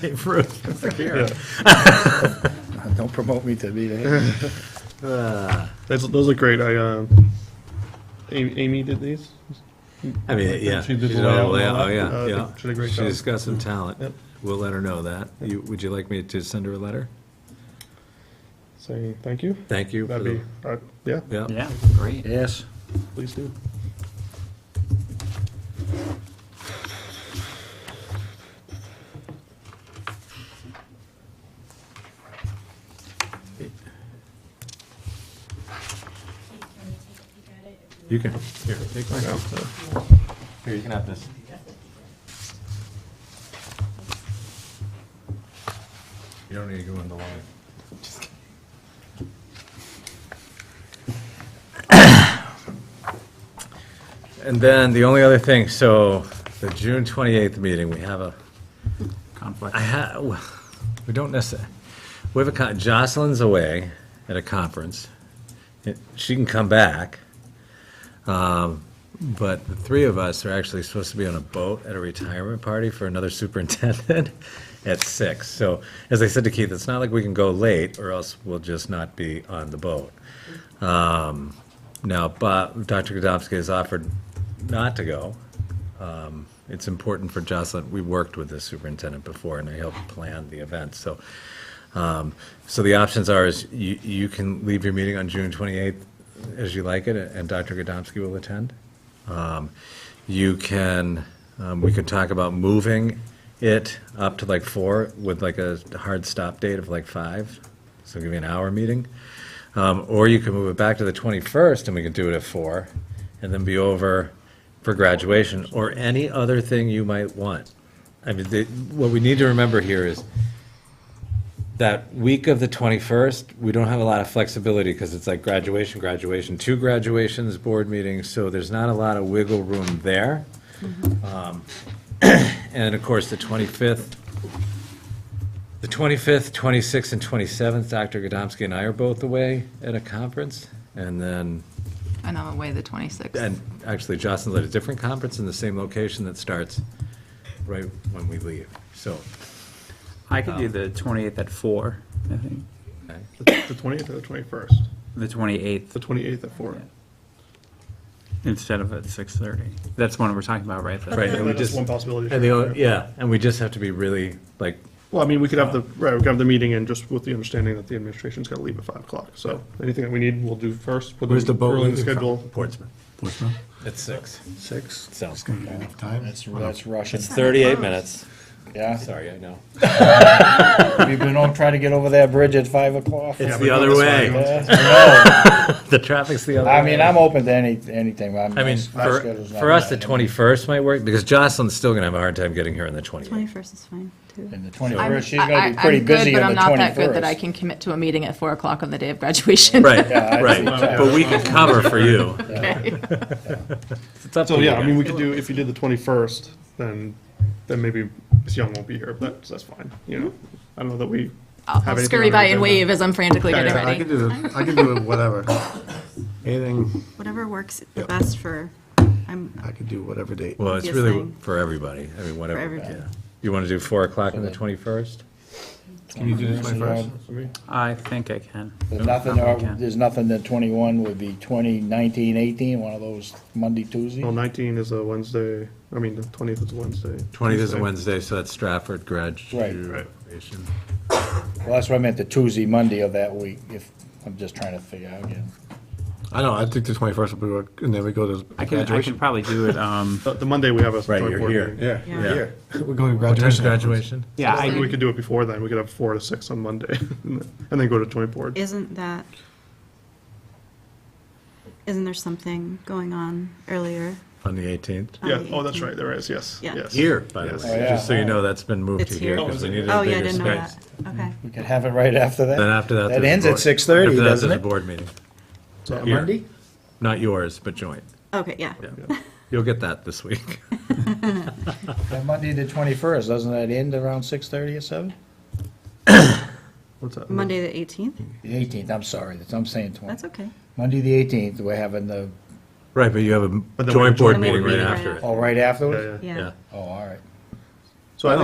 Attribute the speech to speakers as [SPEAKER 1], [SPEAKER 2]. [SPEAKER 1] Dave Ruth.
[SPEAKER 2] Don't promote me to be there.
[SPEAKER 3] That's, those look great. I, uh, Amy, Amy did these.
[SPEAKER 1] I mean, yeah.
[SPEAKER 3] She did the
[SPEAKER 1] she's all- Oh,
[SPEAKER 3] layout and all
[SPEAKER 1] yeah,
[SPEAKER 3] that. Uh, I
[SPEAKER 1] yeah,
[SPEAKER 3] think
[SPEAKER 1] yeah.
[SPEAKER 3] she did a great
[SPEAKER 1] She's
[SPEAKER 3] job.
[SPEAKER 1] got some talent.
[SPEAKER 3] Yep.
[SPEAKER 1] We'll let her know that. You, would you like me to send her a letter?
[SPEAKER 3] Saying thank you.
[SPEAKER 1] Thank you. for
[SPEAKER 3] That'd
[SPEAKER 1] the-
[SPEAKER 3] be, uh, yeah,
[SPEAKER 1] Yeah,
[SPEAKER 4] Yeah, great.
[SPEAKER 2] Yes.
[SPEAKER 3] please do.
[SPEAKER 1] you can, here, take mine. Here, you can have this. You don't need to go in the line. And then the only other thing, so the June 28th meeting, we have a
[SPEAKER 4] Conflict.
[SPEAKER 1] I ha, well, we don't necessarily, we have a, con- Jocelyn's away at a conference. It- She can come back. Um, But the three of us are actually supposed to be on a boat at a retirement party for another superintendent at six. So as I said to Keith, it's not like we can go late or else we'll just not be on the boat. Um, Now, Bob, Dr. Godomsky has offered not to go Um, it's important for Jocelyn, we worked with the superintendent before, and I helped plan the event, so. um, So the options are, is you, you can leave your meeting on June 28th as you like it, and Dr. Godomsky will attend. Um, You can, um, we could talk about moving it up to like four with like a hard stop date of like five, so give you an hour meeting. Um, Or you can move it back to the 21st, and we can do it at four, and then be over for graduation or any other thing you might want. I mean, the, what we need to remember here is that week of the 21st, we don't have a lot of flexibility because it's like graduation, graduation, two graduations, board meetings, so there's not a lot of wiggle room there. Um, And of course, the 25th, the 25th, 26th, and 27th, Dr. Godomsky and I are both away at a conference. And then
[SPEAKER 5] And I'm away the 26th.
[SPEAKER 1] and actually, Jocelyn's at a different conference in the same location that starts right when we leave, so.
[SPEAKER 4] I could do the 28th at 4, I think.
[SPEAKER 1] okay.
[SPEAKER 3] The 20th or the 21st?
[SPEAKER 4] The
[SPEAKER 3] The
[SPEAKER 4] 28th
[SPEAKER 3] 28th at 4.
[SPEAKER 4] instead of at 6:30. That's one we're talking about, right? The-
[SPEAKER 1] Right, and we
[SPEAKER 3] That's
[SPEAKER 1] just,
[SPEAKER 3] one possibility.
[SPEAKER 1] and the, only- yeah, and we just have to be really, like,
[SPEAKER 3] Well, I mean, we could have the, right, we could have the meeting and just with the understanding that the administration's got to leave at 5 o'clock. So anything that we need, we'll do first. put
[SPEAKER 6] Where's the boat
[SPEAKER 3] early in
[SPEAKER 6] leaving from?
[SPEAKER 3] Schedule.
[SPEAKER 1] Portsmouth,
[SPEAKER 6] Portsmouth?
[SPEAKER 1] it's six,
[SPEAKER 2] Six.
[SPEAKER 1] sounds,
[SPEAKER 6] Gonna be enough time?
[SPEAKER 2] That's, that's Russian.
[SPEAKER 1] it's thirty-eight minutes,
[SPEAKER 2] Yeah.
[SPEAKER 1] sorry, I know.
[SPEAKER 2] We've been on, trying to get over that bridge at five o'clock.
[SPEAKER 1] It's
[SPEAKER 3] we
[SPEAKER 1] the
[SPEAKER 3] go
[SPEAKER 1] other
[SPEAKER 3] this
[SPEAKER 1] way,
[SPEAKER 2] Yeah, I
[SPEAKER 1] the traffic's the other
[SPEAKER 2] know.
[SPEAKER 1] way.
[SPEAKER 2] I mean, I'm open to any, anything, but I'm.
[SPEAKER 1] I mean,
[SPEAKER 2] my
[SPEAKER 1] for,
[SPEAKER 2] schedule's not
[SPEAKER 1] for us, the
[SPEAKER 2] bad.
[SPEAKER 1] twenty-first might work, because Jocelyn's still gonna have a hard time getting here on the twenty-eighth.
[SPEAKER 7] Twenty-first is fine, too.
[SPEAKER 2] And the
[SPEAKER 5] I'm-
[SPEAKER 2] twenty-first, she's
[SPEAKER 5] I-
[SPEAKER 2] gonna be
[SPEAKER 5] I'm
[SPEAKER 2] pretty
[SPEAKER 5] good,
[SPEAKER 2] busy on the
[SPEAKER 5] But I'm not
[SPEAKER 2] twenty-first.
[SPEAKER 5] that good that I can commit to a meeting at 4 o'clock on the day of graduation.
[SPEAKER 1] Right,
[SPEAKER 2] Yeah, I-
[SPEAKER 1] right, but we can cover for you.
[SPEAKER 5] Okay.
[SPEAKER 1] It's up to
[SPEAKER 3] So,
[SPEAKER 1] you
[SPEAKER 3] yeah, I
[SPEAKER 1] guys.
[SPEAKER 3] mean, we could do, if you did the 21st, then, then maybe Ms. Young won't be here, but that's fine, you know? I don't know that we
[SPEAKER 5] I'll
[SPEAKER 3] have
[SPEAKER 5] I'll
[SPEAKER 3] anything
[SPEAKER 5] scurry
[SPEAKER 3] on our
[SPEAKER 5] by
[SPEAKER 3] agenda.
[SPEAKER 5] and wave as I'm frantically
[SPEAKER 3] Yeah,
[SPEAKER 5] getting
[SPEAKER 3] yeah,
[SPEAKER 6] I
[SPEAKER 5] ready.
[SPEAKER 6] can do, it. I can do it whatever. Anything,
[SPEAKER 7] Whatever works the best for, I'm,
[SPEAKER 6] I could do whatever date.
[SPEAKER 1] Well, it's
[SPEAKER 7] Yes,
[SPEAKER 1] really
[SPEAKER 7] thing.
[SPEAKER 1] for everybody, I mean, whatever,
[SPEAKER 7] everybody.
[SPEAKER 1] yeah. You want to do 4 o'clock on the 21st?
[SPEAKER 6] Can you do the 21st?
[SPEAKER 4] I think I can.
[SPEAKER 2] There's nothing,
[SPEAKER 4] No, I can't.
[SPEAKER 2] there's nothing that twenty-one would be 20, 19, 18, One of those Monday, Tuesday.
[SPEAKER 3] Well, 19 is a Wednesday, I mean, the 20th is a Wednesday.
[SPEAKER 1] 20th is a Wednesday, so that's Stratford graduation.
[SPEAKER 3] Right.
[SPEAKER 2] Well, that's what I meant, the Tuesday, Monday of that week, if, I'm just trying to figure out, yeah.
[SPEAKER 6] I know, I think the 21st will be, work- and then we go to
[SPEAKER 4] I can, I can
[SPEAKER 6] graduation.
[SPEAKER 4] probably do it, um,
[SPEAKER 3] The the Monday we have a
[SPEAKER 1] Right,
[SPEAKER 3] joint
[SPEAKER 1] you're
[SPEAKER 3] board
[SPEAKER 1] here.
[SPEAKER 3] meeting.
[SPEAKER 6] Yeah,
[SPEAKER 7] Yeah.
[SPEAKER 6] yeah. We're going to
[SPEAKER 1] What
[SPEAKER 6] graduation.
[SPEAKER 1] time's graduation?
[SPEAKER 4] yeah,
[SPEAKER 3] I think
[SPEAKER 4] I,
[SPEAKER 3] we could do it before then, we could have four to six on Monday, and then go to joint board.
[SPEAKER 7] isn't that, isn't there something going on earlier?
[SPEAKER 1] On the 18th?
[SPEAKER 7] on
[SPEAKER 3] Yeah,
[SPEAKER 7] the
[SPEAKER 3] oh, that's
[SPEAKER 7] 18th?
[SPEAKER 3] right, there is, yes,
[SPEAKER 7] Yeah.
[SPEAKER 3] yes.
[SPEAKER 1] Here, by the
[SPEAKER 3] Yes.
[SPEAKER 1] way,
[SPEAKER 2] Oh,
[SPEAKER 1] just so
[SPEAKER 2] yeah.
[SPEAKER 1] you know, that's been moved to
[SPEAKER 7] It's
[SPEAKER 1] here
[SPEAKER 7] here.
[SPEAKER 1] because we needed
[SPEAKER 7] Oh,
[SPEAKER 1] a
[SPEAKER 7] yeah, I
[SPEAKER 1] bigger
[SPEAKER 7] didn't know
[SPEAKER 1] space.
[SPEAKER 7] that, okay.
[SPEAKER 2] We could have it right after that.
[SPEAKER 1] Then after that,
[SPEAKER 2] That
[SPEAKER 1] there's a
[SPEAKER 2] ends
[SPEAKER 1] board-
[SPEAKER 2] at six thirty,
[SPEAKER 1] after that,
[SPEAKER 2] doesn't
[SPEAKER 1] there's a
[SPEAKER 2] it?
[SPEAKER 1] board meeting.
[SPEAKER 3] So-
[SPEAKER 1] Here. Not yours, but joint.
[SPEAKER 7] Okay, yeah.
[SPEAKER 1] You'll get that this week.
[SPEAKER 2] That Monday, the twenty-first, doesn't that end around six thirty or seven?
[SPEAKER 3] What's that?
[SPEAKER 7] Monday, the eighteenth?
[SPEAKER 2] The eighteenth, I'm sorry, that's, I'm saying
[SPEAKER 7] That's
[SPEAKER 2] twenty.
[SPEAKER 7] okay.
[SPEAKER 2] Monday, the eighteenth, we're having the,
[SPEAKER 1] Right, but you have a
[SPEAKER 3] then we have
[SPEAKER 1] joint
[SPEAKER 3] a joint
[SPEAKER 1] board
[SPEAKER 7] board
[SPEAKER 1] meeting right
[SPEAKER 7] meeting right
[SPEAKER 1] after it.
[SPEAKER 2] oh, right
[SPEAKER 3] Yeah,
[SPEAKER 2] afterwards?
[SPEAKER 3] yeah.
[SPEAKER 7] Yeah.
[SPEAKER 1] Yeah,
[SPEAKER 2] Oh, all right.